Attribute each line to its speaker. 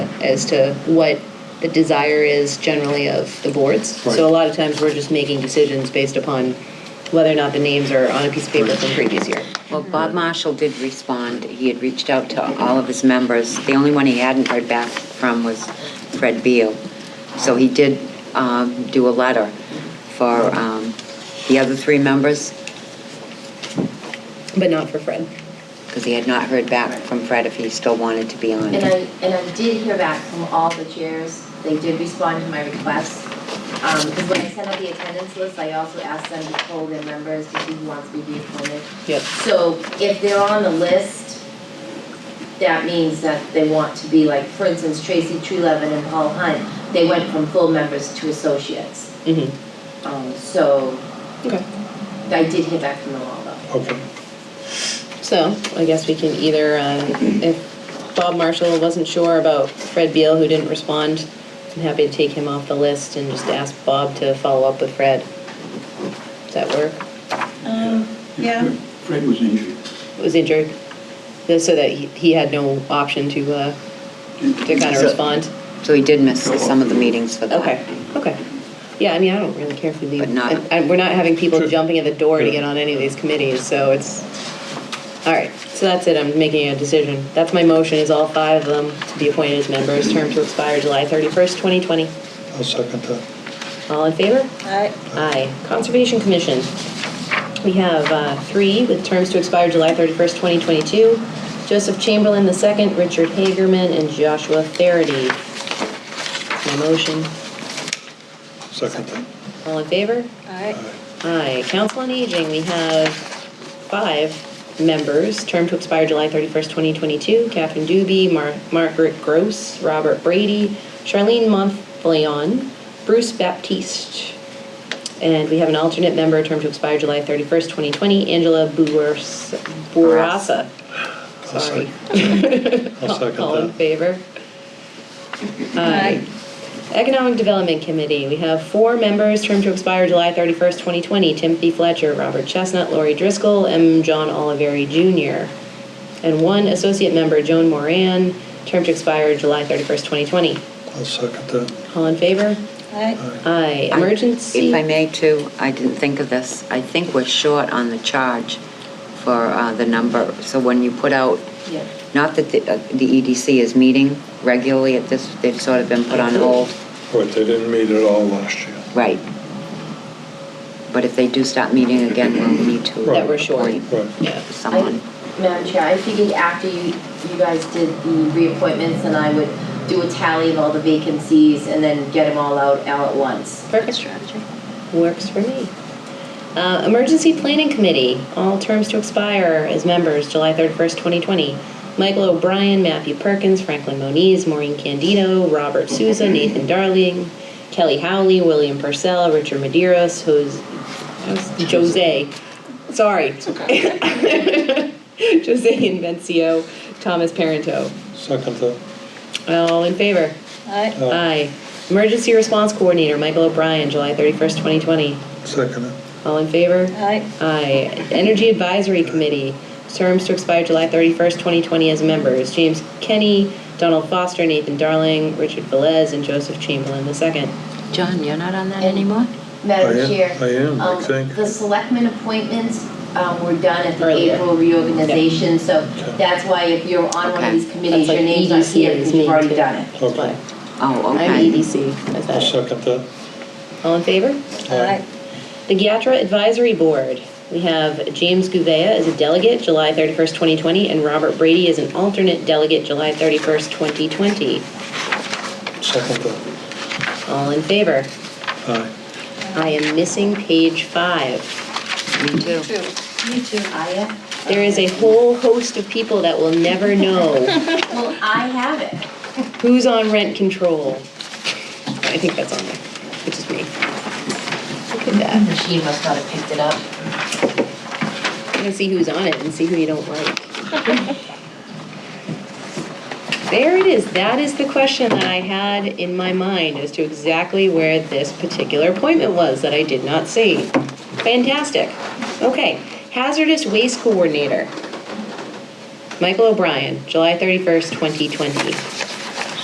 Speaker 1: as to what the desire is generally of the boards. So a lot of times, we're just making decisions based upon whether or not the names are on a piece of paper from previous year.
Speaker 2: Well, Bob Marshall did respond. He had reached out to all of his members. The only one he hadn't heard back from was Fred Beal. So he did um, do a letter for um, the other three members,
Speaker 1: But not for Fred.
Speaker 2: because he had not heard back from Fred if he still wanted to be on.
Speaker 3: And I, and I did hear back from all the chairs, they did respond to my request. Um, because when I sent out the attendance list, I also asked them to poll their members to see who wants to be reappointed.
Speaker 1: Yep.
Speaker 3: So if they're on the list, that means that they want to be like, for instance, Tracy Trelevin and Paul Hunt, they went from full members to associates.
Speaker 1: Mm-hmm.
Speaker 3: Um, so
Speaker 1: Okay.
Speaker 3: I did hear back from them all though.
Speaker 4: Okay.
Speaker 1: So I guess we can either, uh, if Bob Marshall wasn't sure about Fred Beal, who didn't respond, I'm happy to take him off the list and just ask Bob to follow up with Fred. Does that work?
Speaker 5: Um, yeah,
Speaker 4: Fred was injured.
Speaker 1: It was injured, so that he he had no option to, uh, to kind of
Speaker 2: So-
Speaker 1: respond?
Speaker 2: So he did miss some of the meetings for that.
Speaker 1: Okay, okay. Yeah, I mean, I don't really care if we leave.
Speaker 2: But not-
Speaker 1: and- And we're not having people
Speaker 4: Sure.
Speaker 1: jumping at the door to
Speaker 4: Sure.
Speaker 1: get on any of these committees, so it's, all right, so that's it, I'm making a decision. That's my motion, is all five of them to be appointed as members, term to expire July 31st, 2020.
Speaker 4: I'll second that.
Speaker 1: All in favor?
Speaker 5: I,
Speaker 1: Aye. Conservation Commission, we have uh, three with terms to expire July 31st, 2022. Joseph Chamberlain II, Richard Hagerman, and Joshua Faraday. My motion,
Speaker 4: Second that.
Speaker 1: all in favor?
Speaker 5: I,
Speaker 1: Aye. Council on Aging, we have five members, term to expire July 31st, 2022. Catherine Doobie, Mar- Margaret Gross, Robert Brady, Charlene Montfleon, Bruce Baptiste. And we have an alternate member, term to expire July 31st, 2020, Angela Buars- Bourassa.
Speaker 4: I'll
Speaker 1: Sorry.
Speaker 4: I'll second
Speaker 1: All in
Speaker 4: that.
Speaker 1: favor?
Speaker 5: I,
Speaker 1: Economic Development Committee, we have four members, term to expire July 31st, 2020. Timothy Fletcher, Robert Chestnut, Lori Driscoll, and John Oliveri Jr. And one associate member, Joan Moran, term to expire July 31st, 2020.
Speaker 4: I'll second that.
Speaker 1: All in favor?
Speaker 5: I,
Speaker 4: Aye.
Speaker 1: Aye.
Speaker 2: I-
Speaker 1: Emergency?
Speaker 2: If I may too, I didn't think of this. I think we're short on the charge for uh, the number. So when you put out,
Speaker 3: Yeah.
Speaker 2: not that the uh, the EDC is meeting regularly at this, they've sort of been put on hold.
Speaker 4: What, they didn't meet at all last year?
Speaker 2: Right. But if they do stop meeting again, we'll need to.
Speaker 4: That we're
Speaker 1: short.
Speaker 2: appoint
Speaker 4: Right.
Speaker 1: Yeah.
Speaker 2: Someone.
Speaker 3: I- Madam Chair, I figured after you, you guys did the reappointments, then I would do a tally of all the vacancies and then get them all out all at once.
Speaker 1: Perfect strategy. Works for me. Uh, Emergency Planning Committee, all terms to expire as members, July 31st, 2020. Michael O'Brien, Matthew Perkins, Franklin Moniz, Maureen Candido, Robert Souza, Nathan Darling, Kelly Howley, William Purcell, Richard Maderos, Jose, Jose, sorry. Jose Invencio, Thomas Parento.
Speaker 4: Second that.
Speaker 1: All in favor?
Speaker 5: I,
Speaker 1: Aye. Emergency Response Coordinator, Michael O'Brien, July 31st, 2020.
Speaker 4: Second it.
Speaker 1: All in favor?
Speaker 5: I,
Speaker 1: Aye. Energy Advisory Committee, terms to expire July 31st, 2020 as members. James Kenny, Donald Foster, Nathan Darling, Richard Velez, and Joseph Chamberlain II.
Speaker 2: John, you're not on that anymore?
Speaker 4: I
Speaker 3: Madam
Speaker 4: am-
Speaker 3: Chair.
Speaker 4: I am, I
Speaker 3: um,
Speaker 4: think.
Speaker 3: The selectmen appointments um, were done at the
Speaker 1: Earlier.
Speaker 3: April reorganization, so
Speaker 4: Okay.
Speaker 3: that's why if you're on one
Speaker 2: Okay.
Speaker 3: of these
Speaker 1: That's
Speaker 3: committees,
Speaker 1: like E
Speaker 3: your name's not
Speaker 1: EDC
Speaker 3: here
Speaker 1: is
Speaker 3: because
Speaker 1: me
Speaker 3: you've already
Speaker 1: too.
Speaker 3: done it.
Speaker 1: That's why.
Speaker 2: Oh,
Speaker 1: I'm E
Speaker 2: okay.
Speaker 1: EDC, I
Speaker 4: I'll
Speaker 1: said.
Speaker 4: second that.
Speaker 1: All in favor?
Speaker 5: I,
Speaker 1: The Giatra Advisory Board, we have James Gouveia as a delegate, July 31st, 2020, and Robert Brady as an alternate delegate, July 31st, 2020.
Speaker 4: Second that.
Speaker 1: All in favor?
Speaker 4: Aye.
Speaker 1: I am missing page five.
Speaker 2: Me too.
Speaker 5: too.
Speaker 3: You too. I am.
Speaker 1: There is a whole host of people that will never know
Speaker 3: Well, I have it.
Speaker 1: who's on rent control. I think that's on there, which is me. Look at that.
Speaker 3: Machine must not have picked it up.
Speaker 1: You can see who's on it and see who you don't like. There it is. That is the question that I had in my mind as to exactly where this particular appointment was that I did not see. Fantastic. Okay, hazardous waste coordinator. Michael O'Brien, July 31st, 2020.